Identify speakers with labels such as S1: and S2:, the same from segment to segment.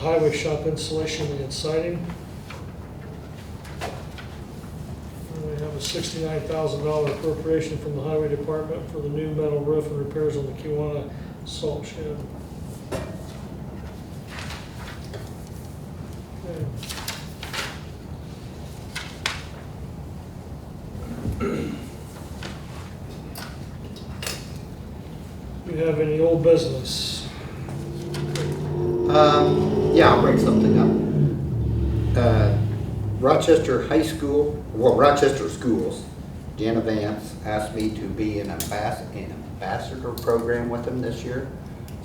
S1: Highway shop installation and siding. And We have a sixty-nine thousand dollar appropriation from the highway department for the new metal roof and repairs on the Kiwanis salt shed. Okay. Do you have any old business?
S2: Um, yeah, I'll bring something up. Uh, Rochester High School, well, Rochester Schools, Jana Vance asked me to be an ambas- an ambassador program with them this year,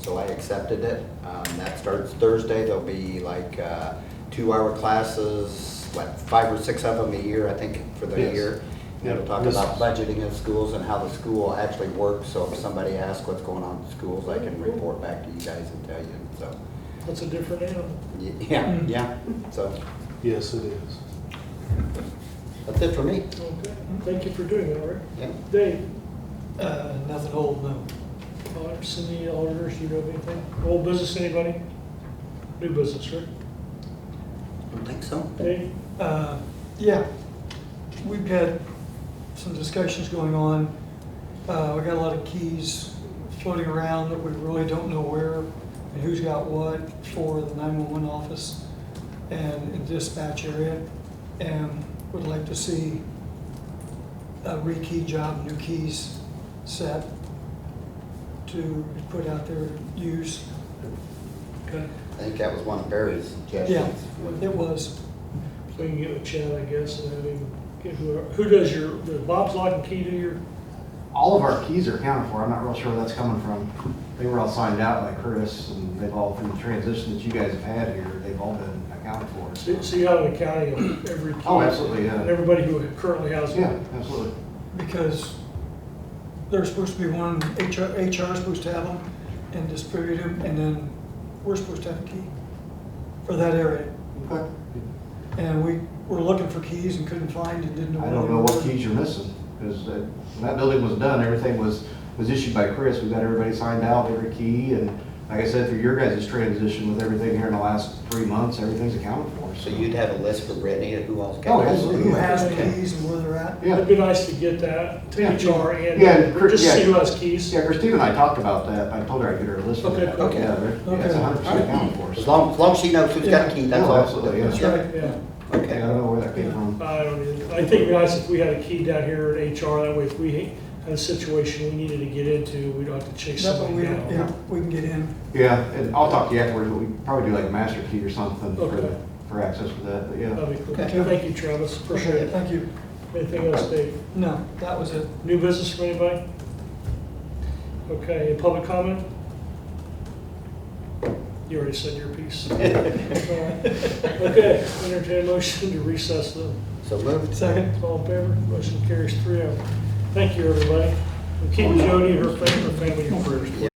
S2: so I accepted it. Um, that starts Thursday, there'll be like, uh, two-hour classes, what, five or six of them a year, I think, for the
S3: Yes.
S2: year. And it'll talk about budgeting in schools and how the school actually works, so if somebody asks what's going on in schools, I can report back to you guys and tell you, so.
S1: That's a different animal.
S2: Yeah,
S4: Mm.
S2: yeah, so,
S3: Yes, it is.
S2: that's it for me,
S1: Okay, thank you for doing that, Rick.
S2: yeah.
S1: Dave,
S5: Uh, nothing old, no.
S1: auditors, any auditors, you know of anything? Old business, anybody? New business, Rick?
S2: Don't think so.
S1: Dave?
S5: Uh, yeah, we've had some discussions going on. Uh, we got a lot of keys floating around that we really don't know where and who's got what for the nine-one-one office and in dispatch area. And would like to see a rekey job, new keys set to put out there to use.
S1: Okay,
S2: I think that was one of Barry's suggestions.
S5: It was,
S1: so we can get with Chad, I guess, and have him get who, who does your, does Bob's lock and key do your?
S4: All of our keys are accounted for. I'm not real sure where that's coming from. They were all signed out by Chris and they've all, through the transition that you guys have had here, they've all been accounted for.
S1: So
S4: so-
S1: so you have an accounting of every key?
S4: Oh, absolutely, yeah.
S1: And everybody who currently has one?
S4: Yeah, absolutely.
S5: because there's supposed to be one, HR, HR is supposed to have them and distribute them, and then we're supposed to have a key for that area.
S4: Okay.
S5: And we were looking for keys and couldn't find and didn't know.
S4: I
S5: where
S4: don't
S5: they
S4: know
S5: were.
S4: what keys you're missing because uh, when that building was done, everything was, was issued by Chris. We've got everybody signed out, every key. And like I said, through your guys' transition with everything here in the last three months, everything's accounted for.
S2: So you'd have a list for Brittany of who else
S4: Oh,
S2: got it?
S4: absolutely.
S5: Who has the
S4: Yeah.
S5: keys and where they're at.
S4: Yeah.
S1: It'd be nice to get that to
S4: Yeah.
S1: HR and,
S4: Yeah, and Chris-
S1: just see
S4: yeah.
S1: who has keys.
S4: Yeah, Christine and I talked about that. I told her I'd get her a list of
S1: Okay,
S4: that.
S2: okay.
S4: Yeah, they're- yeah, it's
S5: Okay.
S4: hundred percent accounted for.
S2: As
S4: so-
S2: long, as long as she knows who's got a key, that's
S4: Oh,
S2: all.
S4: absolutely, yeah.
S5: That's
S2: Yeah.
S5: right.
S1: Yeah.
S4: Yeah, I
S2: Okay,
S4: don't know where that came from.
S1: I don't either. I think it'd be nice if we had a key down here in HR, that way if we had a situation we needed to get into, we don't have to chase
S5: That way we,
S1: somebody
S5: yeah,
S1: down.
S5: we can get in.
S4: Yeah, and I'll talk to you afterwards, but we probably do like a master key or something for,
S1: Okay.
S4: the- for access for that, but yeah.
S1: That'd be cool.
S5: Okay.
S1: Thank you, Travis, appreciate it.
S5: Thank you.
S1: Anything else, Dave?
S5: No, that was it.
S1: New business from anybody? Okay, any public comment? You already said your piece. All right. Okay, entertain a motion to recess the,
S2: so moved.
S5: Second.
S1: all in favor? Motion carries three oh. Thank you, everybody. And Keep Jody, her family, her family in your prayers.